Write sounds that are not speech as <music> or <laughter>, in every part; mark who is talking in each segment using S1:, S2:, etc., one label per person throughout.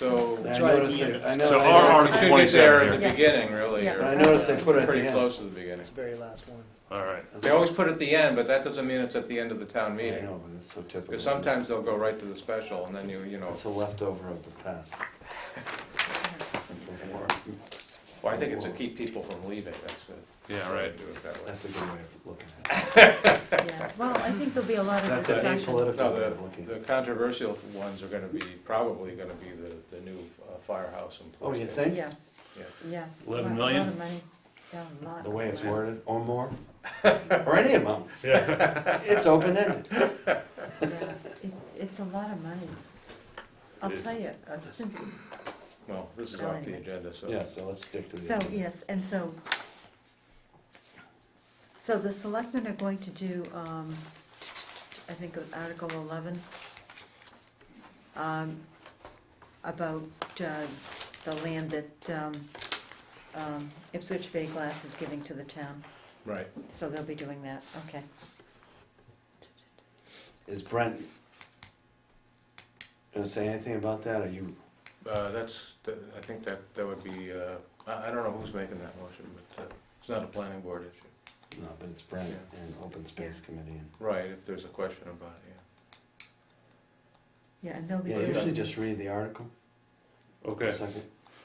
S1: little.
S2: I
S1: tricky
S2: noticed
S1: and
S2: it.
S1: it's
S2: I
S3: So
S2: noticed
S3: our
S2: it.
S4: You get
S3: Article
S4: there at
S3: 27
S4: the
S3: here.
S4: beginning, really.
S5: Yeah.
S4: or
S2: I noticed they put it at the
S4: Pretty
S2: end.
S4: close to the beginning.
S1: It's the very last one.
S3: All right.
S4: They always put it at the end, but that doesn't mean it's at the end of the town
S2: I
S4: meeting.
S2: know, but it's so typical.
S4: Because sometimes they'll go right to the special and then you, you know,
S2: It's a leftover of the past.
S4: well, I think it's to keep people from leaving, that's it.
S3: Yeah, right.
S4: Do it that way.
S2: That's a good way of looking at it.
S5: Yeah, well, I think there'll be a lot of
S2: That's an
S5: discussion.
S2: apolitical
S4: No,
S2: way of looking
S4: the,
S2: at
S4: the
S2: it.
S4: controversial ones are gonna be, probably gonna be the, the new uh, firehouse and.
S2: Oh, you think?
S5: Yeah,
S4: Yeah.
S5: yeah.
S3: Eleven
S5: Lot-
S3: million?
S5: lot of money. Yeah, a lot.
S2: The way it's worded, or more, or any amount,
S3: Yeah.
S2: it's open-ended.
S5: Yeah, it- It's a lot of money. I'll
S3: It is.
S5: tell you, uh, since,
S4: Well, this is off the agenda, so.
S2: Yeah, so let's stick to the.
S5: so, yes, and so, so the selectmen are going to do, um, I think it was Article eleven, um, about, uh, the land that, um, um, Ipswich Bay Glass is giving to the town.
S4: Right.
S5: So they'll be doing that, okay.
S2: Is Brent gonna say anything about that, or you,
S4: Uh, that's, that- I think that, that would be, uh, I, I don't know who's making that motion, but uh, it's not a planning board issue.
S2: no, but it's Brent and Open Space Committee. and-
S4: Right, if there's a question about it, yeah.
S5: Yeah, and they'll be
S2: Yeah,
S5: doing.
S2: usually just read the article,
S3: Okay.
S2: second.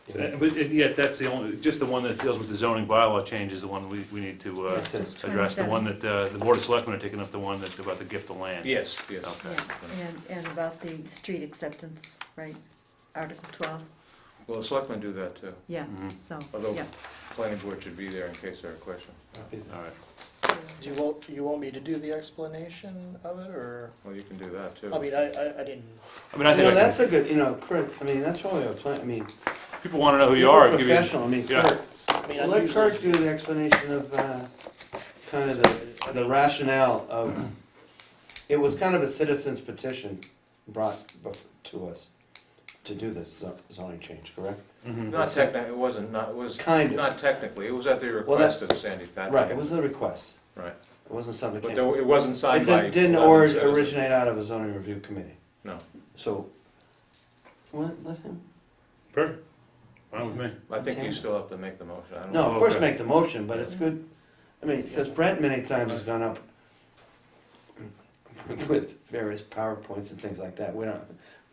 S3: Uh, But it- yet, that's the only, just the one that deals with the zoning bylaw change is the one we, we need to uh,
S2: That's it.
S5: Just
S3: address. The
S5: 27.
S3: one that, uh, the Board of Selectmen are taking up the one that, about the gift of land.
S4: Yes, yes.
S3: Okay.
S5: Yeah, and, and about the street acceptance, right, Article twelve,
S4: Well, the selectmen do that too,
S5: yeah,
S3: Mhm.
S5: so,
S4: although
S5: yeah.
S4: planning board should be there in case there are questions.
S3: All right.
S1: Do you want, you want me to do the explanation of it, or,
S4: Well, you can do that too.
S1: I mean, I, I, I didn't.
S3: I mean, I
S2: No,
S3: think, I
S2: that's
S3: can-
S2: a good, you know, Kurt, I mean, that's why we have plan, I mean.
S3: people want to know who Oh, you
S2: you're
S3: are.
S2: a
S3: give you-
S2: Professional, I mean,
S3: Yeah.
S2: Kurt,
S1: I mean, I
S2: let
S1: usually-
S2: Kurt do the explanation of, uh, kind of the, the rationale of, it was kind of a citizen's petition brought bef- to us to do this zo- zoning change, correct?
S3: Mhm.
S4: Not technically, it wasn't, not, it was,
S2: Kind of,
S4: not technically, it was at the
S2: Well, that-
S4: request of Sandy Patrick.
S2: right, it was a request,
S4: Right,
S2: it wasn't something that
S4: but
S2: came.
S4: there- it wasn't
S2: It
S4: signed by.
S2: didn't, didn't
S4: 11
S2: or-
S4: citizens.
S2: originate out of a zoning review committee,
S4: No,
S2: so, well, let him,
S3: Perfect. Fine with me.
S4: I think you
S2: Okay.
S4: still have to make the motion, I don't.
S2: No, of course
S3: Okay.
S2: make the motion, but it's good, I mean, because Brent many times has
S4: <laughs>
S2: gone up with various PowerPoints and things like that, we don't,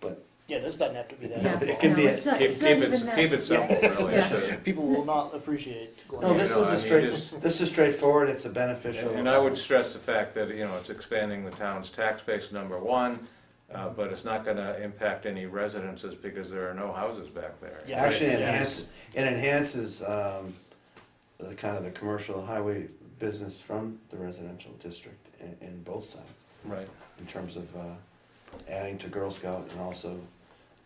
S2: but,
S1: Yeah, this doesn't have to be that.
S5: <laughs> Yeah,
S2: It can
S5: no,
S2: be a-
S5: it's not-
S4: Keep,
S5: it's
S4: keep
S5: not even
S4: it,
S5: that-
S4: keep it simple, really.
S5: Yeah.
S4: So-
S1: People will not appreciate. going
S2: no,
S4: You
S1: there.
S2: this
S4: know,
S2: is
S4: I
S2: a
S4: mean,
S2: straight,
S4: just-
S2: this is straightforward, it's a beneficial.
S4: And I would stress the fact that, you know, it's expanding the town's tax base, number one, uh,
S2: Mm-hmm.
S4: but it's not gonna impact any residences because there are no houses back there.
S1: Yeah.
S2: Actually
S1: Right.
S2: enhances, it enhances, um, the kind of the commercial highway business from the residential district in, in both sides,
S4: Right.
S2: in terms of, uh, adding to Girl Scout and also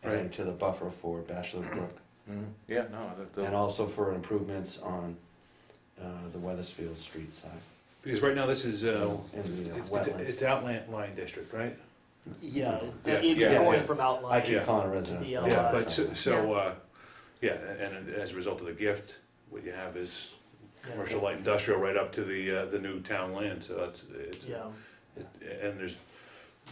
S2: adding
S3: Right.
S2: to the buffer for Bachelor Brook.
S4: Mhm. Yeah, no, that-
S2: And
S4: that-
S2: also for improvements on uh, the Weathersfield Street side.
S3: Because right now, this is, uh,
S2: In the uh,
S3: it's- it's
S2: wetlands.
S3: it's outland line district, right?
S1: Yeah,
S3: Yeah,
S1: it-
S4: yeah,
S1: it's going
S2: yeah.
S1: from
S2: I
S1: outline.
S2: keep calling it residential.
S1: Yeah,
S3: Yeah,
S1: uh,
S3: but so- so,
S5: Yeah.
S3: uh, yeah, and as a result of the gift, what you have is
S1: Yeah.
S3: commercial light industrial right up to the, uh, the new town land, so it's, it's,
S1: Yeah,
S3: it- and there's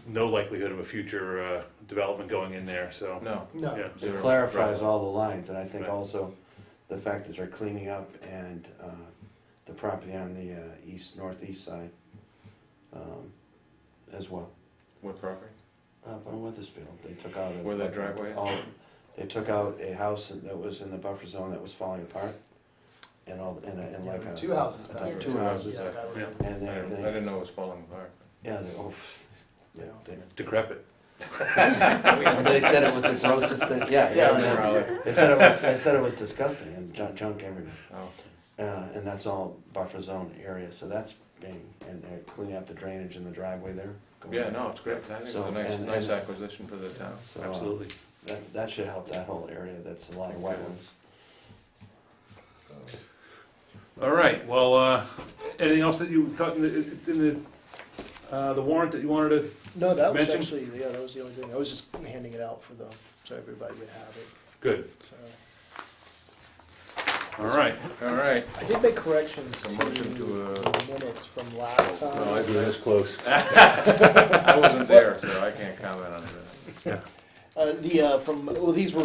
S3: no likelihood of a future, uh, development going in there, so.
S4: no.
S1: no,
S3: Yeah.
S2: It
S4: zero.
S2: clarifies all the lines, and I think
S3: Right.
S2: also the fact that they're cleaning up and uh, the property on the uh, east, northeast side um, as well.
S4: What property?
S2: Up on Weathersfield, they took out. a-
S4: Where that driveway is?
S2: all- They took out a house that was in the buffer zone that was falling apart, and all, and a- and
S1: Yeah,
S2: like a.
S1: two houses
S2: a-
S1: back
S5: there.
S2: Two houses,
S1: yeah, that would-
S3: Yeah.
S2: and
S4: I
S2: they,
S4: didn't, I
S2: they
S4: didn't know it was falling apart.
S2: <laughs> Yeah, they, oh,
S1: Yeah.
S2: they,
S3: Decrepit.
S2: <laughs> they said it was the grossest thing. Yeah, yeah.
S1: Yeah,
S2: they-
S4: probably.
S2: They said it was. They said it was disgusting and junk, junk everywhere.
S4: Oh,
S2: Uh, and that's all buffer zone area, so that's being and they're cleaning up the drainage in the driveway there. going
S4: Yeah,
S2: back.
S4: no, it's great, I think it's
S2: So,
S4: a nice,
S2: and-
S4: nice
S2: and-
S4: acquisition for the town.
S2: So, uh,
S3: Absolutely.
S2: that, that should help that whole area. That's a lot of white ones.
S1: <laughs>
S3: All right, well, uh, anything else that you thought in the, in the, uh, the warrant that you wanted to?
S1: No, that was
S3: Mention-
S1: actually, yeah, that was the only thing. I was just handing it out for the, so everybody would have it,
S3: Good,
S1: so.
S3: all right.
S4: All right,
S1: I did make corrections to
S4: A motion to, uh, Oh,
S1: the minutes from last time.
S3: this close.
S4: I wasn't there, so I can't comment on this.
S1: Uh, the, uh, from, well, these were